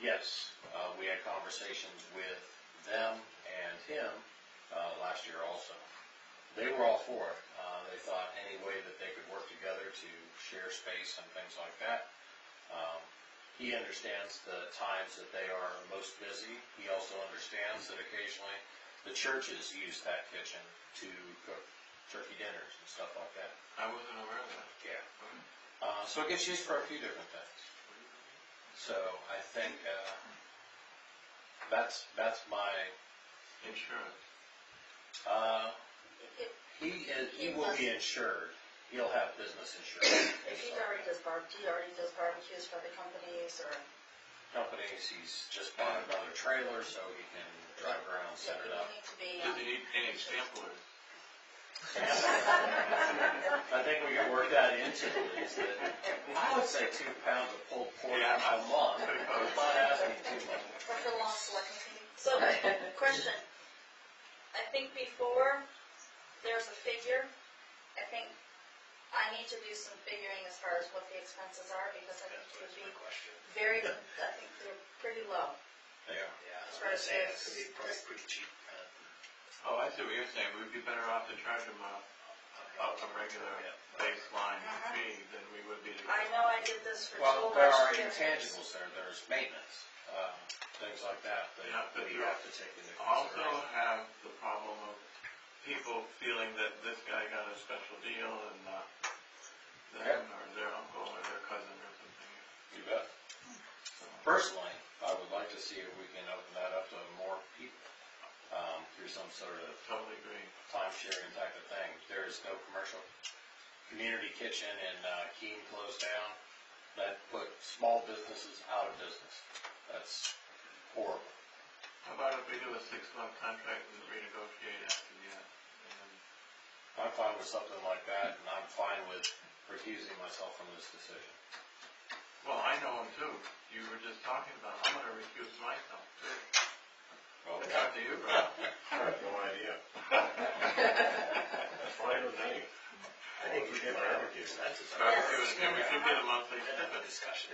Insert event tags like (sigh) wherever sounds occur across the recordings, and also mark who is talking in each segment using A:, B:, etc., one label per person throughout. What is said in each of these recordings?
A: Yes, uh, we had conversations with them and him, uh, last year also. They were all for it. Uh, they thought any way that they could work together to share space and things like that. Um, he understands the times that they are most busy. He also understands that occasionally the churches use that kitchen to cook turkey dinners and stuff like that.
B: I wasn't aware of that.
A: Yeah. Uh, so it gets used for a few different things. So I think, uh, that's, that's my,
B: Insurance.
A: uh,
C: If,
A: he is, he will be insured. He'll have business insurance.
C: if he already does bar, he already does barbecues for the companies or,
A: Companies, he's just bought another trailer so he can drive around, set
C: you
A: it
D: (laughs)
A: up.
C: need to be.
B: Does it need any samplers?
A: I think we can work that into the lease, that, I would say two pounds of pulled pork
B: Yeah.
A: a month, but not asking too much.
C: Like the lawn selecting committee?
D: So, (laughs) question. I think before, there's a figure. I think I need to do some figuring as far as what the expenses are because I think it would be
E: question.
D: very, I think they're pretty low.
A: They are.
E: Yeah, I
D: That's
E: was gonna
D: right,
E: say,
D: it's-
E: it's probably pretty cheap, uh,
B: Oh, I see what you're saying, we'd be better off to charge them a,
E: on
B: a regular
E: Yeah.
B: baseline
D: Uh-huh.
B: fee than we would be to.
D: I know I did this for two
A: Well, there are
D: last year.
A: intangibles there, there's maintenance, uh, things like that, that
B: Yeah, but
A: that you
B: you're
A: have to take into
B: Also
A: consideration.
B: have the problem of people feeling that this guy got a special deal and not them or their uncle or their cousin or something.
A: You bet. Personally, I would like to see if we can open that up to more people, um, through some sort of
B: Totally agree.
A: time sharing type of thing. There is no commercial community kitchen in uh, Keene closed down. That put small businesses out of business. That's horrible.
B: How about if we do a six-month contract and renegotiate after that? And then
A: I'm fine with something like that and I'm fine with recusing myself from this decision.
B: Well, I know him too. You were just talking about, I'm gonna recuse myself too.
A: Well,
B: It's up to you, bro.
F: I have no idea. That's fine with me.
E: I
F: Well,
E: think we did
F: we never
E: barbecue,
F: did.
E: that's as far
B: Start
E: as.
B: doing it. we should get a monthly
E: Another
B: stipend.
E: discussion.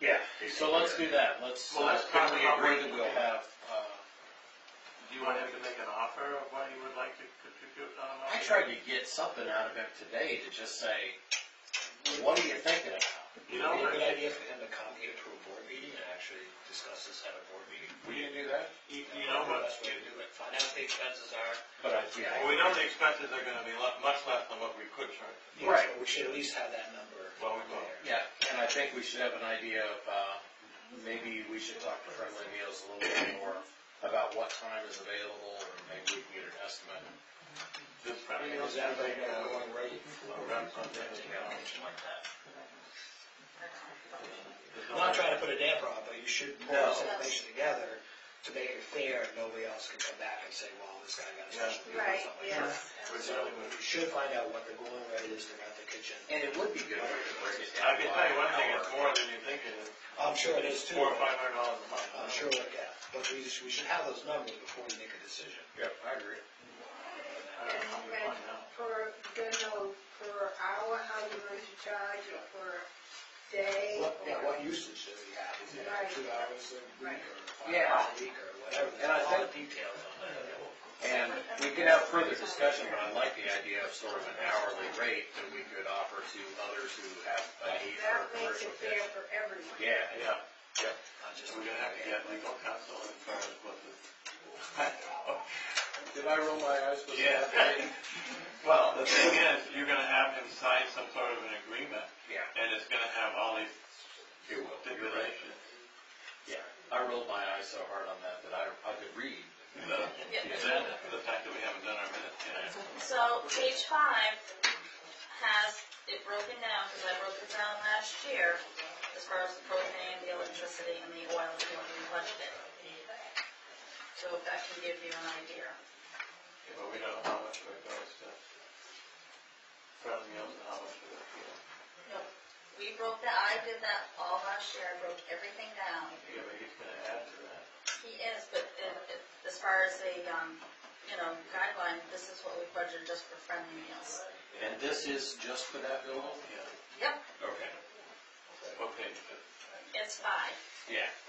A: Yeah, so let's do that. Let's, uh,
B: Well, let's
A: can we
B: talk about
A: agree that
B: what-
A: we'll have, uh,
B: Do you want him to make an offer of what he would like to contribute on a
A: I
B: monthly?
A: tried to get something out of him today to just say, what are you thinking about?
B: You
E: You
B: know,
E: know, a good
B: I-
E: idea for him to come here to a board meeting and actually discuss this at a board meeting.
A: We didn't do that?
B: you you know what?
E: That's what you do, it. find out what the expenses are.
A: But I, yeah.
B: Well, we know the expenses are gonna be lo- much less than what we could charge.
E: Yeah,
A: Right.
E: so We should at least have that number.
B: Well, we will.
E: there.
A: Yeah, and I think we should have an idea of, uh, maybe we should talk to Friendly Meals a little bit more about what time is available, or maybe we can get an estimate.
B: This
E: I
B: Friday,
E: mean,
B: uh,
E: is that like, uh, going right?
B: around Sunday.
E: I'm not trying to put a damper on, it, but you should pull
A: No.
E: this information together to make it fair, and nobody else can come back and say, well, this guy got a special deal or
D: Right,
E: something like that.
D: yes.
E: So, you should find out what the going rate is to rent the kitchen.
A: And it would be good if we could break it down.
B: I can tell you one thing,
A: by
B: it's
A: hour.
B: more than you think it is.
E: I'm sure it is too.
B: Four or five hundred dollars a month.
E: I'm sure, it- yeah, but we, we should have those numbers before we make a decision.
A: Yep, I agree.
B: I don't know, we find out.
G: Per, don't know, per hour, how you going to charge, or per day,
E: What, yeah,
G: or,
E: what usage do we have? Is it
G: Right.
E: two hours a week or five
A: Yeah.
E: hours a week or whatever?
A: And I
E: All
A: think-
E: the details on
A: (laughs)
E: that.
A: And we could have further discussion, but I like the idea of sort of an hourly rate that we could offer to others who have a need for
G: that
A: a
G: makes
A: commercial
G: it fair
A: kitchen.
G: for everyone.
A: Yeah,
B: Yeah,
E: Not just-
B: we're gonna have to get legal counsel as far as what this.
A: did I roll my eyes with
B: Yeah.
A: that? Yeah.
B: Well, the thing is, you're gonna have him sign some sort of an agreement,
A: Yeah,
B: and it's gonna have all these
A: you will, you're right.
B: stipulations.
A: Yeah, I rolled my eyes so hard on that that I, I could read.
B: The the agenda, the fact that we haven't done our minutes yet.
D: So page five has it broken down, because I broke it down last year, as far as the propane, the electricity, and the oil, and what we budgeted. So if that can give you an idea.
B: Yeah, But we don't know how much of it goes to friendly meals and how much of it, you know.
D: We broke that, I did that all last year, I broke everything down.
B: Yeah, but he's gonna add to that.
D: He is, but i- i- as far as a, um, you know, guideline, this is what we budgeted just for friendly meals.
A: And this is just for that building?
B: Yeah.
D: Yep,
A: Okay.
B: Okay,
D: it's five.
A: Yeah,